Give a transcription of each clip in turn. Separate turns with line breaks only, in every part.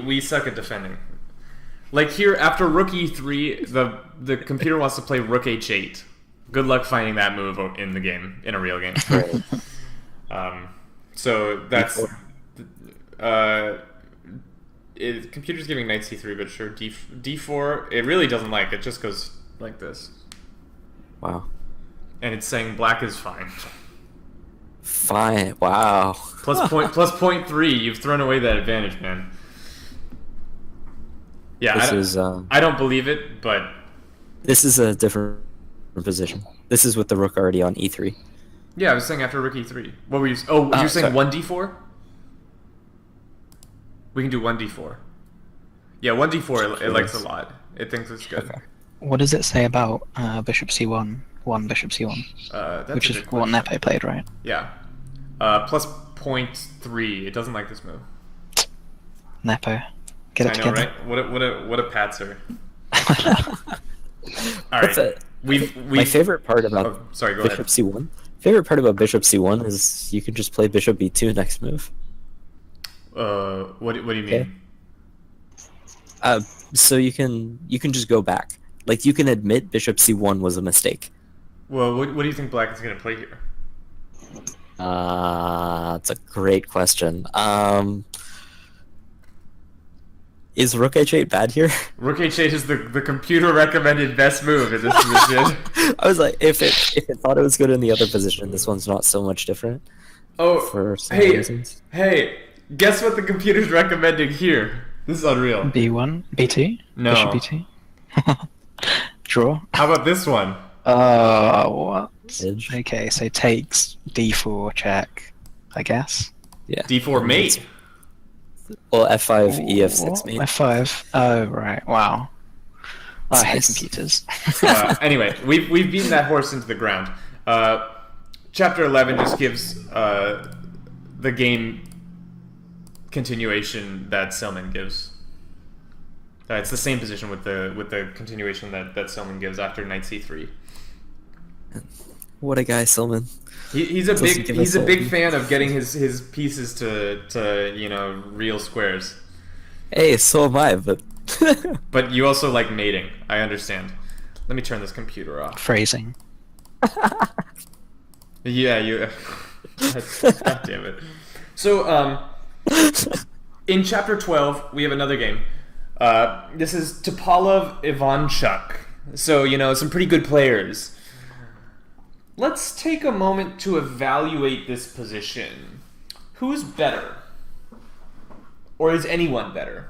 we suck at defending. Like here, after rook e3, the the computer wants to play rook h8. Good luck finding that move o- in the game, in a real game. um, so that's uh, it, computer's giving knight c3, but sure d d4. It really doesn't like it. Just goes like this,
Wow.
and it's saying black is fine.
Fine. Wow.
Plus point plus point three. You've thrown away that advantage, man. Yeah, I
This
don't,
is um,
I don't believe it, but
this is a different position. This is with the rook already on E e3.
yeah, I was saying after rookie three. What were you? Oh,
Ah,
you're saying
sorry.
one d four. We can do one d four. Yeah, one d four. It, it likes a lot. It thinks it's good.
What does it say about uh, bishop c1, 1 bishop c1,
Uh, that's a
which is
good
what
question.
Nepe played, right?
Yeah, uh, plus point three. It doesn't like this move.
Nepo. Get it
I know,
together.
right? What a what a what a patzer. All
What's
right,
that?
we've we.
My favorite part about
Oh, sorry, go ahead.
bishop c1. Favorite part about bishop c1 is you can just play bishop b2 next move.
Uh, what what do you mean?
Okay. Uh, so you can you can just go back. Like you can admit bishop c1 was a mistake.
Well, what, what do you think Black is going to play here?
Uh, that's a great question. Um, is rook h8 bad here?
Rook H8 is the, the computer recommended best move in this position.
I was like, if it if it thought it was good in the other position, this one's not so much different
Oh,
for some
hey,
reasons.
hey, guess what the computer's recommending here? This is unreal.
b1, b2,
No.
bishop b2. Draw.
How about this one?
Oh, what?
Edge.
Okay, so takes d4 check, I guess.
Yeah.
D4 mate.
Well, f5, e f6 mate.
F5. Oh, right. Wow. I hate
Nice.
computers.
Uh, anyway, we've, we've beaten that horse into the ground. Uh, chapter 11 just gives uh, the game continuation that Selman gives. Uh, it's the same position with the with the continuation that, that Selman gives after knight c3.
What a guy, Silman.
He, he's a
Doesn't
big
give
he's
us
a
a-
big fan of getting his his pieces to to you know real squares.
Hey, so am I, but
But you also like mating. I understand. Let me turn this computer off.
Phrasing.
Yeah, you. God damn it. So um, in chapter twelve we have another game. Uh, this is Topalov Ivanchuk. So you know some pretty good players. Let's take a moment to evaluate this position. Who's better? Or is anyone better?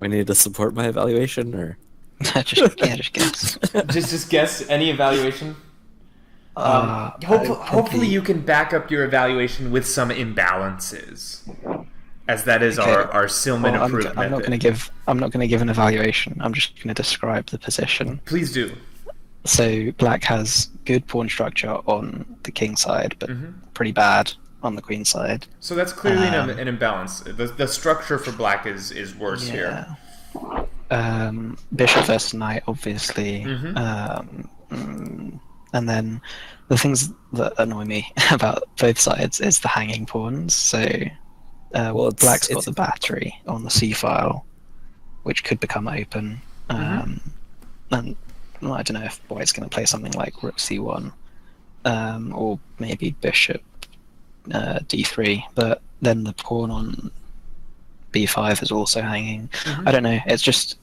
we need to support my evaluation, or
just, yeah, just guess.
Just just guess any evaluation. Um,
Uh,
hope-
I
hopefully
probably-
you can back up your evaluation with some imbalances, as that is
Okay.
our our Silman
Well, I'm,
approved
I'm not
method.
going to give. I'm not going to give an evaluation. I'm just going to describe the position.
Please do.
So black has good pawn structure on the king side, but pretty bad on the queen side.
So that's clearly an,
Um,
an imbalance. The, the structure for black is is worse here.
Um, bishop versus knight, obviously.
Mhm.
Um, mm, and then the things that annoy me about both sides is the hanging pawns. So uh,
Well, it's-
black's got
it's-
the battery on the c file, which could become open.
Mm-hmm.
Um, And well, I don't know if white's going to play something like rook c1 um, or maybe bishop uh, d3, but then the pawn on b5 is also hanging.
Mm-hmm.
I don't know. It's just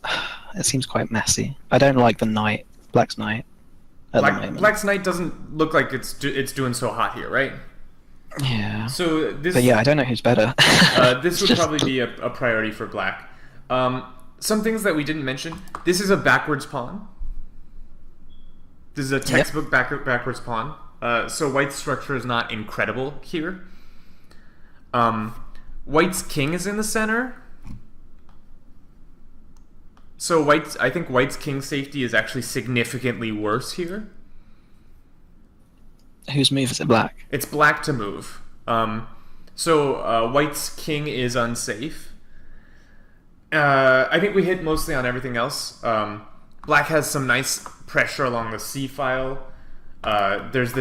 it seems quite messy. I don't like the knight, black's knight. At the
Black,
moment.
Black's knight doesn't look like it's do, it's doing so hot here, right?
Yeah.
So this
But yeah, I don't know who's better.
uh, this
It's
would
just-
probably be a, a priority for black. Um, some things that we didn't mention. This is a backwards pawn. This is a textbook back, backwards pawn. Uh, so white's structure is not incredible here. Um, white's king is in the center. So white's I think white's king safety is actually significantly worse here.
whose move is it? Black.
It's black to move. Um, so uh, white's king is unsafe. Uh, I think we hit mostly on everything else. Um, black has some nice pressure along the c file. Uh, there's this.